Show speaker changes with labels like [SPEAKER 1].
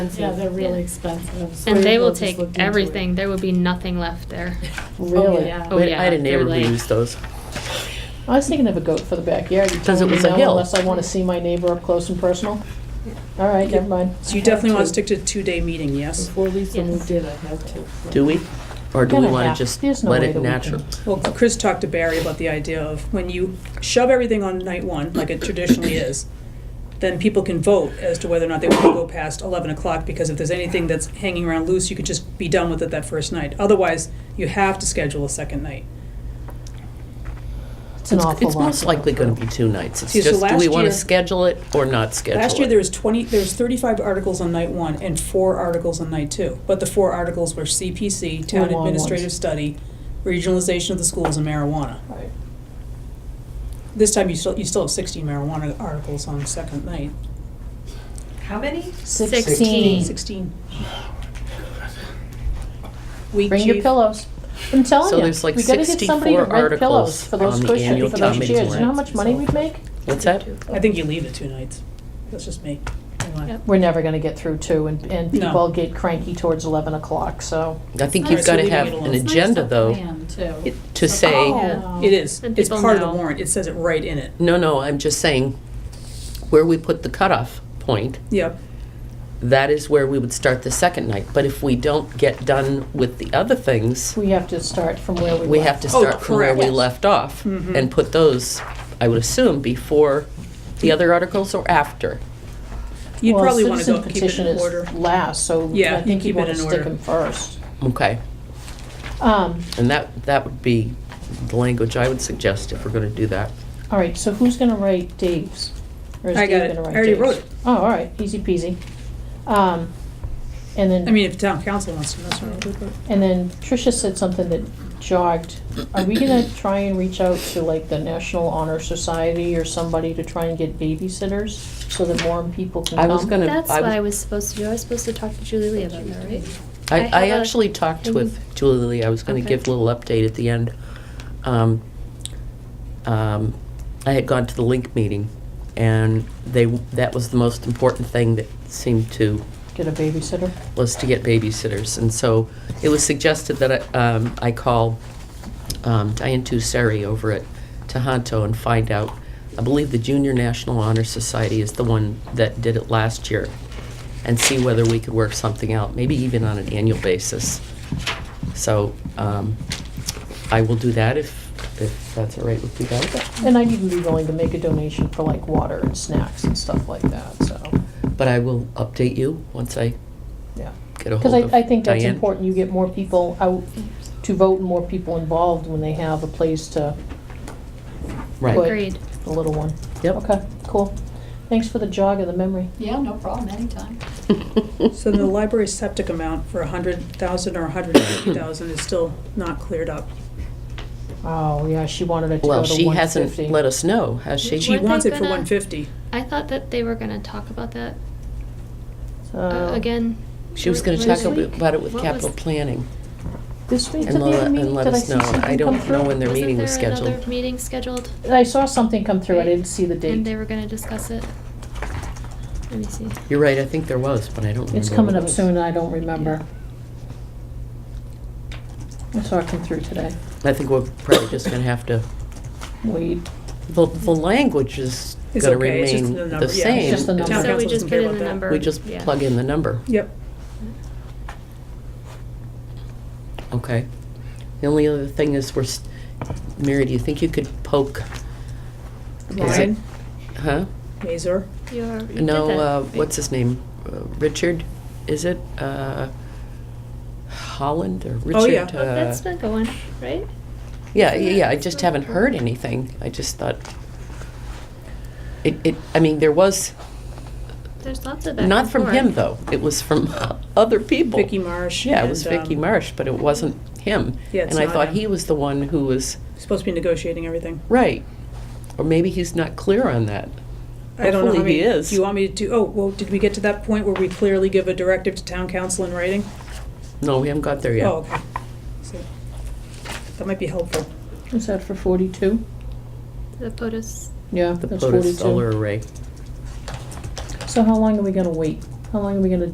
[SPEAKER 1] Yeah, they're really
[SPEAKER 2] Yeah.
[SPEAKER 1] expensive. So
[SPEAKER 2] And they
[SPEAKER 1] we'll
[SPEAKER 2] will
[SPEAKER 1] just
[SPEAKER 2] take
[SPEAKER 1] look into it.
[SPEAKER 2] everything. There will be nothing left there.
[SPEAKER 1] Really?
[SPEAKER 3] yeah.
[SPEAKER 2] Oh,
[SPEAKER 3] Wait,
[SPEAKER 2] yeah,
[SPEAKER 3] I had a neighbor
[SPEAKER 2] they're like-
[SPEAKER 3] who used those.
[SPEAKER 4] I was thinking of a goat for the backyard. You
[SPEAKER 3] Because
[SPEAKER 4] told
[SPEAKER 3] it
[SPEAKER 4] me
[SPEAKER 3] was a
[SPEAKER 4] no
[SPEAKER 3] hill.
[SPEAKER 4] Unless I want to see my neighbor up close and personal. All right, never mind.
[SPEAKER 5] So you definitely want to stick to the two-day meeting, yes?
[SPEAKER 1] Before Lisa
[SPEAKER 2] Yes.
[SPEAKER 1] moved in, I had to.
[SPEAKER 3] Do we? Or do we
[SPEAKER 4] Kinda
[SPEAKER 3] want
[SPEAKER 4] half.
[SPEAKER 3] to just
[SPEAKER 4] There's no
[SPEAKER 3] let
[SPEAKER 4] way
[SPEAKER 3] it
[SPEAKER 4] that we
[SPEAKER 3] natural?
[SPEAKER 5] Well, Chris talked to Barry about the idea of when you shove everything on night one, like it traditionally is, then people can vote as to whether or not they want to go past 11 o'clock, because if there's anything that's hanging around loose, you could just be done with it that first night. Otherwise, you have to schedule a second night.
[SPEAKER 4] It's an awful
[SPEAKER 3] It's
[SPEAKER 4] lot.
[SPEAKER 3] most likely going to be two nights. It's
[SPEAKER 5] See, so
[SPEAKER 3] just, do we
[SPEAKER 5] last
[SPEAKER 3] want to
[SPEAKER 5] year-
[SPEAKER 3] schedule it or not schedule it?
[SPEAKER 5] Last year, there was 20, there was 35 articles on night one and four articles on night two. But the four articles were CPC,
[SPEAKER 4] Were
[SPEAKER 5] Town
[SPEAKER 4] long ones.
[SPEAKER 5] Administrative Study, Regionalization of the Schools, and Marijuana.
[SPEAKER 4] Right.
[SPEAKER 5] This time, you still, you still have 16 marijuana articles on second night.
[SPEAKER 6] How many?
[SPEAKER 2] Sixteen.
[SPEAKER 5] 16. Week
[SPEAKER 4] Bring your
[SPEAKER 5] chief-
[SPEAKER 4] pillows. I'm telling
[SPEAKER 3] So
[SPEAKER 4] you,
[SPEAKER 3] there's like
[SPEAKER 4] we gotta get somebody
[SPEAKER 3] 64
[SPEAKER 4] to rent
[SPEAKER 3] articles
[SPEAKER 4] pillows for those
[SPEAKER 3] on the
[SPEAKER 4] cushions,
[SPEAKER 3] annual
[SPEAKER 4] for
[SPEAKER 3] town
[SPEAKER 4] those
[SPEAKER 3] meeting
[SPEAKER 4] chairs. You know how
[SPEAKER 3] warrant.
[SPEAKER 4] much money we'd make?
[SPEAKER 3] What's that?
[SPEAKER 5] I think you leave it two nights. That's just me. Hang on.
[SPEAKER 2] Yep.
[SPEAKER 4] We're never gonna get through two and, and
[SPEAKER 5] No.
[SPEAKER 4] people get cranky towards eleven o'clock, so.
[SPEAKER 3] I think
[SPEAKER 5] Alright,
[SPEAKER 3] you've
[SPEAKER 5] so
[SPEAKER 3] got to
[SPEAKER 5] leaving
[SPEAKER 3] have
[SPEAKER 5] it
[SPEAKER 3] an
[SPEAKER 5] alone. It's
[SPEAKER 1] nice
[SPEAKER 3] agenda,
[SPEAKER 1] to
[SPEAKER 3] though,
[SPEAKER 1] plan, too. oh,
[SPEAKER 3] it- to say,
[SPEAKER 2] Yeah.
[SPEAKER 5] It is.
[SPEAKER 2] And
[SPEAKER 5] Um, It's
[SPEAKER 2] people
[SPEAKER 5] part of the
[SPEAKER 2] know.
[SPEAKER 5] warrant. It says it right in it.
[SPEAKER 3] no, no, I'm just saying, where we put the cutoff point,
[SPEAKER 5] Yep.
[SPEAKER 3] that is where we would start the second night. But if we don't get done with the other things,
[SPEAKER 4] We have to start from where we
[SPEAKER 3] we have to
[SPEAKER 5] Oh,
[SPEAKER 3] start from where we
[SPEAKER 5] correct.
[SPEAKER 3] left off
[SPEAKER 5] Mhm.
[SPEAKER 3] and put those, I would assume, before the other articles or after.
[SPEAKER 5] You'd probably want to go keep it in order.
[SPEAKER 4] petition is last, so
[SPEAKER 5] Yeah,
[SPEAKER 4] I think
[SPEAKER 5] keep
[SPEAKER 4] you
[SPEAKER 5] it
[SPEAKER 4] wanna
[SPEAKER 5] in
[SPEAKER 4] stick
[SPEAKER 5] order.
[SPEAKER 4] them first.
[SPEAKER 3] Okay,
[SPEAKER 4] Um,
[SPEAKER 3] and that, that would be the language I would suggest if we're going to do that.
[SPEAKER 4] all right, so who's gonna write Dave's? Or is
[SPEAKER 5] I
[SPEAKER 4] Dave
[SPEAKER 5] got it.
[SPEAKER 4] gonna
[SPEAKER 5] I
[SPEAKER 4] write
[SPEAKER 5] already
[SPEAKER 4] Dave's?
[SPEAKER 5] wrote it.
[SPEAKER 4] Oh, all right, easy peasy. Um, and then.
[SPEAKER 5] I mean, if town council wants to mess around with it.
[SPEAKER 4] And then Tricia said something that jogged. Are we gonna try and reach out to like the National Honor Society or somebody to try and get babysitters so that more people can
[SPEAKER 3] I was
[SPEAKER 4] come?
[SPEAKER 3] gonna.
[SPEAKER 2] That's what I was supposed to do. I was supposed to talk to Julie Lee about that, right? I
[SPEAKER 3] I,
[SPEAKER 2] have
[SPEAKER 3] I
[SPEAKER 2] a
[SPEAKER 3] actually talked
[SPEAKER 2] thing.
[SPEAKER 3] with Julie Lee, I was gonna
[SPEAKER 2] Okay.
[SPEAKER 3] give a little update at the end. Um, um, I had gone to the link meeting, and they, that was the most important thing that seemed to,
[SPEAKER 4] Get a babysitter?
[SPEAKER 3] was to get babysitters. And so it was suggested that I, um, I call um, Diane Tusseri over at Tohoto and find out. I believe the Junior National Honor Society is the one that did it last year, and see whether we could work something out, maybe even on an annual basis. So um, I will do that if, if that's all right with you guys.
[SPEAKER 4] And I'd even be willing to make a donation for like water and snacks and stuff like that, so,
[SPEAKER 3] But I will update you once I
[SPEAKER 4] yeah.
[SPEAKER 3] get a
[SPEAKER 4] Because
[SPEAKER 3] hold of
[SPEAKER 4] I, I think that's
[SPEAKER 3] Diane.
[SPEAKER 4] important. You get more people out to vote and more people involved when they have a place to,
[SPEAKER 3] Right,
[SPEAKER 4] But-
[SPEAKER 2] Agreed.
[SPEAKER 4] the little one.
[SPEAKER 3] yep.
[SPEAKER 4] Okay, cool. Thanks for the jog of the memory.
[SPEAKER 1] Yeah, no problem, anytime.
[SPEAKER 5] So the library's septic amount for a hundred thousand or a hundred and fifty thousand is still not cleared up.
[SPEAKER 4] Oh, yeah, she wanted it to go
[SPEAKER 3] Well,
[SPEAKER 4] to
[SPEAKER 3] she
[SPEAKER 4] one
[SPEAKER 3] hasn't
[SPEAKER 4] fifty.
[SPEAKER 3] let us know, has she?
[SPEAKER 5] She
[SPEAKER 2] Weren't they
[SPEAKER 5] wants it for
[SPEAKER 2] gonna-
[SPEAKER 5] one fifty.
[SPEAKER 2] I thought that they were going to talk about that uh,
[SPEAKER 4] So-
[SPEAKER 2] again.
[SPEAKER 3] Oh. She was gonna
[SPEAKER 2] Were-
[SPEAKER 3] talk
[SPEAKER 2] were-
[SPEAKER 3] about it with
[SPEAKER 2] what
[SPEAKER 3] capital
[SPEAKER 2] was-
[SPEAKER 3] planning.
[SPEAKER 4] This week, did
[SPEAKER 3] And
[SPEAKER 4] they have a
[SPEAKER 3] let,
[SPEAKER 4] meeting?
[SPEAKER 3] and let
[SPEAKER 4] Did I
[SPEAKER 3] us
[SPEAKER 4] see
[SPEAKER 3] know. I
[SPEAKER 4] something come
[SPEAKER 3] don't know
[SPEAKER 4] through?
[SPEAKER 3] when their meeting was
[SPEAKER 2] Wasn't there
[SPEAKER 3] scheduled.
[SPEAKER 2] another meeting scheduled?
[SPEAKER 4] I saw something come through, I didn't see the
[SPEAKER 2] And
[SPEAKER 4] date.
[SPEAKER 2] they were going to discuss it. Let me see.
[SPEAKER 3] You're right, I think there was, but I don't remember.
[SPEAKER 4] It's coming
[SPEAKER 3] what
[SPEAKER 4] up
[SPEAKER 3] it was.
[SPEAKER 4] soon, and I don't remember. I saw it come through today.
[SPEAKER 3] I think we're probably just gonna have to,
[SPEAKER 4] Wade,
[SPEAKER 3] the, the language is
[SPEAKER 5] It's
[SPEAKER 3] gonna
[SPEAKER 5] okay, it's just
[SPEAKER 3] remain
[SPEAKER 5] the
[SPEAKER 3] the
[SPEAKER 5] number, yeah, it's
[SPEAKER 3] same.
[SPEAKER 4] just the number.
[SPEAKER 5] Town
[SPEAKER 2] So we
[SPEAKER 5] council
[SPEAKER 2] just
[SPEAKER 5] doesn't
[SPEAKER 2] put
[SPEAKER 5] care
[SPEAKER 2] in
[SPEAKER 5] about
[SPEAKER 2] the
[SPEAKER 5] that.
[SPEAKER 2] number.
[SPEAKER 3] We just
[SPEAKER 2] yeah.
[SPEAKER 3] plug in the number,
[SPEAKER 5] Yep.
[SPEAKER 3] okay? The only other thing is we're, s- Mary, do you think you could poke, Is it-
[SPEAKER 5] Ryan,
[SPEAKER 3] huh?
[SPEAKER 5] Mazur,
[SPEAKER 2] You are- you did
[SPEAKER 3] No,
[SPEAKER 2] that,
[SPEAKER 3] uh,
[SPEAKER 2] right?
[SPEAKER 3] what's his name? Uh, Richard, is it? Uh, Holland or Richard?
[SPEAKER 5] Oh, yeah.
[SPEAKER 2] Oh, that's
[SPEAKER 3] uh,
[SPEAKER 2] been going, right?
[SPEAKER 3] Yeah, yeah, yeah, I just haven't heard anything. I just thought, it, it, I mean, there was,
[SPEAKER 2] There's lots of that.
[SPEAKER 3] not from him, though. It was from other people.
[SPEAKER 5] Vicky Marsh.
[SPEAKER 3] Yeah, it was
[SPEAKER 5] and,
[SPEAKER 3] Vicky
[SPEAKER 5] um,
[SPEAKER 3] Marsh, but it wasn't him.
[SPEAKER 5] Yeah, it's
[SPEAKER 3] And I
[SPEAKER 5] not
[SPEAKER 3] thought
[SPEAKER 5] him.
[SPEAKER 3] he was the one who was,
[SPEAKER 5] Supposed to be negotiating everything.
[SPEAKER 3] right. Or maybe he's not clear on that.
[SPEAKER 5] I don't know how
[SPEAKER 3] Hopefully Oh, he
[SPEAKER 5] many,
[SPEAKER 3] is.
[SPEAKER 5] do you want me to, do? oh, well, did we get to that point where we clearly give a directive to town council in writing?
[SPEAKER 3] No, we haven't got there yet.
[SPEAKER 5] Oh, okay. So, That might be helpful.
[SPEAKER 4] is that for forty-two?
[SPEAKER 2] The POTUS.
[SPEAKER 4] Yeah,
[SPEAKER 3] The
[SPEAKER 4] that's
[SPEAKER 3] POTUS solar
[SPEAKER 4] forty-two.
[SPEAKER 3] array.
[SPEAKER 4] So how long are we gonna wait? How long are we gonna